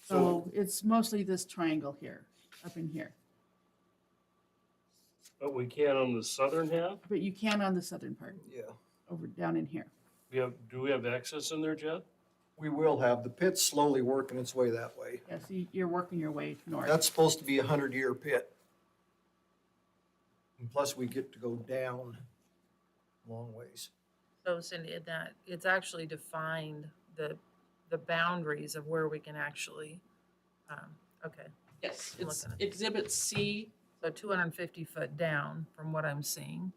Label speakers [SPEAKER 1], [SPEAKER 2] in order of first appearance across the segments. [SPEAKER 1] So it's mostly this triangle here, up in here.
[SPEAKER 2] But we can on the southern half?
[SPEAKER 1] But you can on the southern part,
[SPEAKER 3] Yeah,
[SPEAKER 1] over down in here.
[SPEAKER 2] We have, do we have access in there, Jed?
[SPEAKER 3] we will have, the pit's slowly working its way that way.
[SPEAKER 1] Yeah, so you're working your way north.
[SPEAKER 3] That's supposed to be a hundred-year pit. And plus, we get to go down a long ways.
[SPEAKER 4] So Cindy, in that, it's actually defined the, the boundaries of where we can actually, um, okay.
[SPEAKER 5] Yes,
[SPEAKER 4] I'm
[SPEAKER 5] it's
[SPEAKER 4] looking
[SPEAKER 5] exhibit C.
[SPEAKER 4] So two hundred and fifty foot down from what I'm seeing.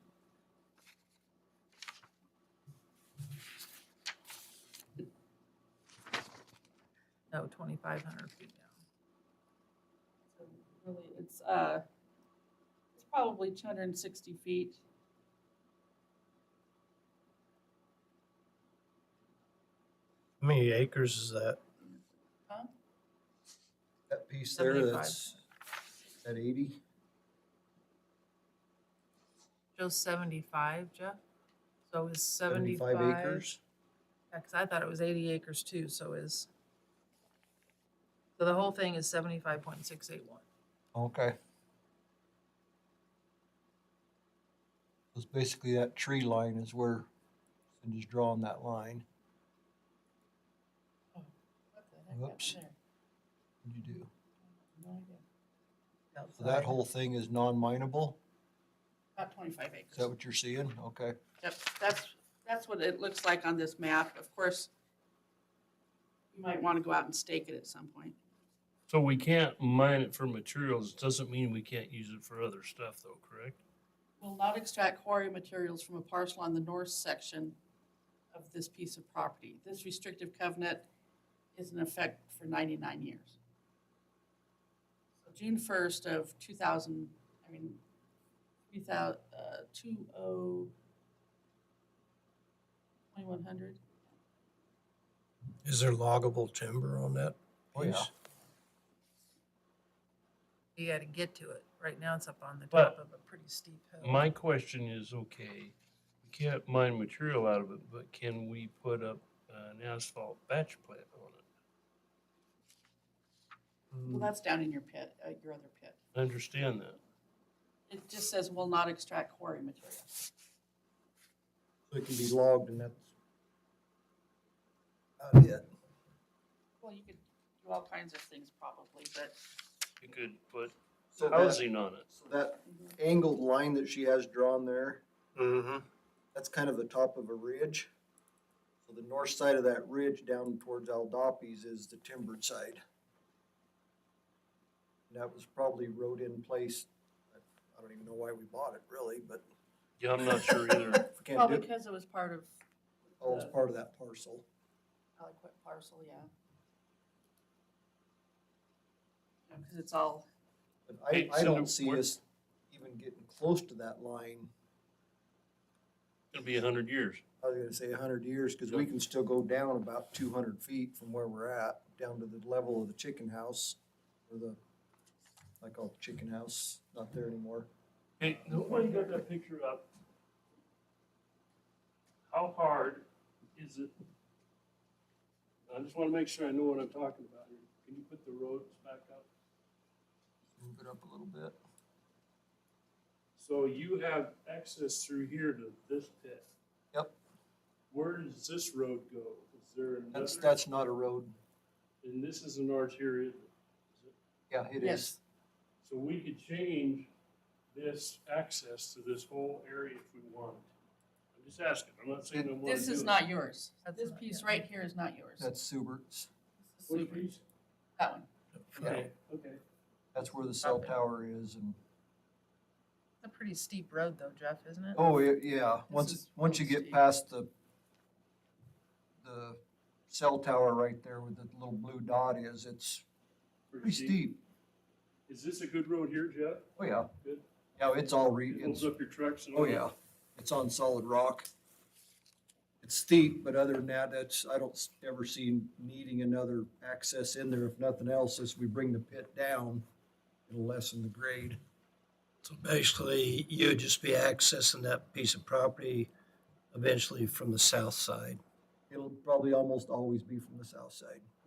[SPEAKER 4] No, twenty-five hundred feet down.
[SPEAKER 5] So Really, it's, uh, it's probably two hundred and sixty feet.
[SPEAKER 6] How many acres is that?
[SPEAKER 3] That piece there,
[SPEAKER 4] 75.
[SPEAKER 3] that's at eighty.
[SPEAKER 4] Joe's seventy-five, Jeff? So is
[SPEAKER 3] 75
[SPEAKER 4] seventy-five?
[SPEAKER 3] acres.
[SPEAKER 4] Yeah, 'cause I thought it was eighty acres too, so is. So the whole thing is seventy-five point six eight one.
[SPEAKER 3] Okay. Because basically that tree line is where, and just drawing that line. Whoops. What'd you do? So that whole thing is non-mineable?
[SPEAKER 5] About twenty-five acres.
[SPEAKER 3] Is that what you're seeing? Okay.
[SPEAKER 5] Yep, that's, that's what it looks like on this map. Of course, you might want to go out and stake it at some point.
[SPEAKER 2] So we can't mine it for materials, doesn't mean we can't use it for other stuff though, correct?
[SPEAKER 5] Will not extract quarry materials from a parcel on the north section of this piece of property. This restrictive covenant is in effect for ninety-nine years. So June first of two thousand, I mean, three thou, uh, two oh, twenty-one hundred?
[SPEAKER 6] Is there loggable timber on that?
[SPEAKER 3] Oh, yeah.
[SPEAKER 6] piece?
[SPEAKER 4] You gotta get to it. Right now it's up on the
[SPEAKER 2] But
[SPEAKER 4] top of a pretty steep hill.
[SPEAKER 2] My question is, okay, we can't mine material out of it, but can we put up an asphalt batch plant on it?
[SPEAKER 3] Mm,
[SPEAKER 5] Well, that's down in your pit, uh, your other pit.
[SPEAKER 2] I understand that.
[SPEAKER 5] It just says will not extract quarry material.
[SPEAKER 3] So it can be logged and that's about it.
[SPEAKER 5] Well, you could do all kinds of things probably, but
[SPEAKER 2] You could put
[SPEAKER 3] So that,
[SPEAKER 2] housing on it.
[SPEAKER 3] so that angled line that she has drawn there,
[SPEAKER 6] Mm-hmm.
[SPEAKER 3] that's kind of the top of a ridge. So the north side of that ridge down towards Aldoppe's is the timbered side. And that was probably rode in place, I I don't even know why we bought it really, but
[SPEAKER 2] Yeah, I'm not sure either.
[SPEAKER 3] if we can't
[SPEAKER 5] probably
[SPEAKER 3] do,
[SPEAKER 5] because it was part of
[SPEAKER 3] oh, it's part of that parcel.
[SPEAKER 5] Aliquip parcel, yeah. Because it's all,
[SPEAKER 3] But I,
[SPEAKER 2] Hey,
[SPEAKER 3] I
[SPEAKER 2] so
[SPEAKER 3] don't see
[SPEAKER 2] we're-
[SPEAKER 3] us even getting close to that line
[SPEAKER 2] It'll be a hundred years.
[SPEAKER 3] I was gonna say a hundred years, cause we can still go down about two hundred feet from where we're at, down to the level of the chicken house, or the, I call it chicken house, not there anymore.
[SPEAKER 2] Hey, nobody got that picture up. How hard is it? I just wanna make sure I know what I'm talking about here. Can you put the roads back up?
[SPEAKER 3] Move it up a little bit.
[SPEAKER 2] So you have access through here to this pit.
[SPEAKER 3] Yep.
[SPEAKER 2] Where does this road go? Is there another?
[SPEAKER 3] That's, that's not a road.
[SPEAKER 2] And this is an arterial.
[SPEAKER 3] Yeah, it is.
[SPEAKER 5] Yes.
[SPEAKER 2] So we could change this access to this whole area if we wanted. I'm just asking. I'm not saying I wanna
[SPEAKER 5] this
[SPEAKER 2] do
[SPEAKER 5] is
[SPEAKER 2] it.
[SPEAKER 5] not yours.
[SPEAKER 4] That's
[SPEAKER 5] This
[SPEAKER 4] not-
[SPEAKER 5] piece
[SPEAKER 4] yeah.
[SPEAKER 5] right here is not yours.
[SPEAKER 3] That's Subert's.
[SPEAKER 5] This is
[SPEAKER 2] Which
[SPEAKER 5] Subaru,
[SPEAKER 2] piece?
[SPEAKER 5] That one.
[SPEAKER 2] Okay, okay.
[SPEAKER 3] That's where the cell tower is and,
[SPEAKER 4] It's a pretty steep road though, Jeff, isn't it?
[SPEAKER 3] oh, yeah, yeah,
[SPEAKER 5] is
[SPEAKER 3] once, once you
[SPEAKER 5] really
[SPEAKER 3] get
[SPEAKER 5] steep.
[SPEAKER 3] past the, the cell tower right there where the little blue dot is, it's pretty steep.
[SPEAKER 2] Is this a good road here, Jeff?
[SPEAKER 3] Oh, yeah.
[SPEAKER 2] Good.
[SPEAKER 3] Yeah, it's all re,
[SPEAKER 2] It
[SPEAKER 3] it's
[SPEAKER 2] holds up your trucks and all
[SPEAKER 3] Oh,
[SPEAKER 2] that?
[SPEAKER 3] yeah, it's on solid rock. It's steep, but other than that, that's, I don't s- ever see needing another access in there. If nothing else, as we bring the pit down, it'll lessen the grade.
[SPEAKER 6] So basically, you'd just be accessing that piece of property eventually from the south side.
[SPEAKER 3] It'll probably almost always be from the south side.